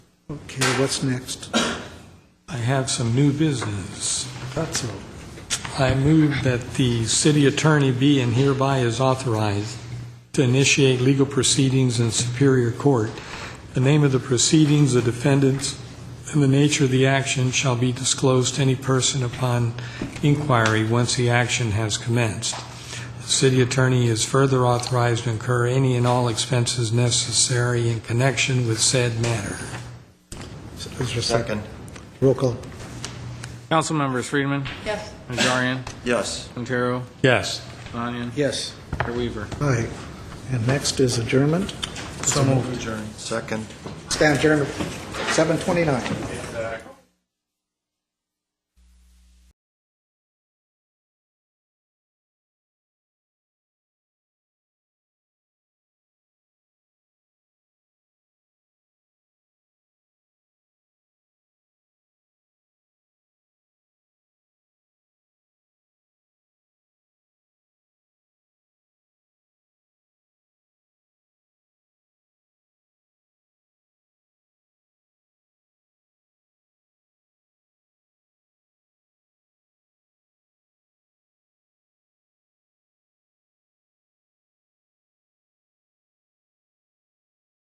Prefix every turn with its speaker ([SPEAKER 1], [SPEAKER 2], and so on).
[SPEAKER 1] Okay, what's next?
[SPEAKER 2] I have some new business.
[SPEAKER 1] That's all.
[SPEAKER 2] I move that the city attorney be and hereby is authorized to initiate legal proceedings in Superior Court. The name of the proceedings, the defendants, and the nature of the action shall be disclosed to any person upon inquiry once the action has commenced. The city attorney is further authorized to incur any and all expenses necessary in connection with said matter.
[SPEAKER 1] Is there a second? Roll call.
[SPEAKER 3] Council members Friedman,
[SPEAKER 4] Yes.
[SPEAKER 3] Najarian,
[SPEAKER 5] Yes.
[SPEAKER 3] Quintero,
[SPEAKER 2] Yes.
[SPEAKER 3] Sinanian,
[SPEAKER 1] Yes.
[SPEAKER 3] Mayor Weaver.
[SPEAKER 1] Aye. And next is adjournment.
[SPEAKER 3] So moved.
[SPEAKER 5] Second.
[SPEAKER 1] Stand adjourned, 7:29.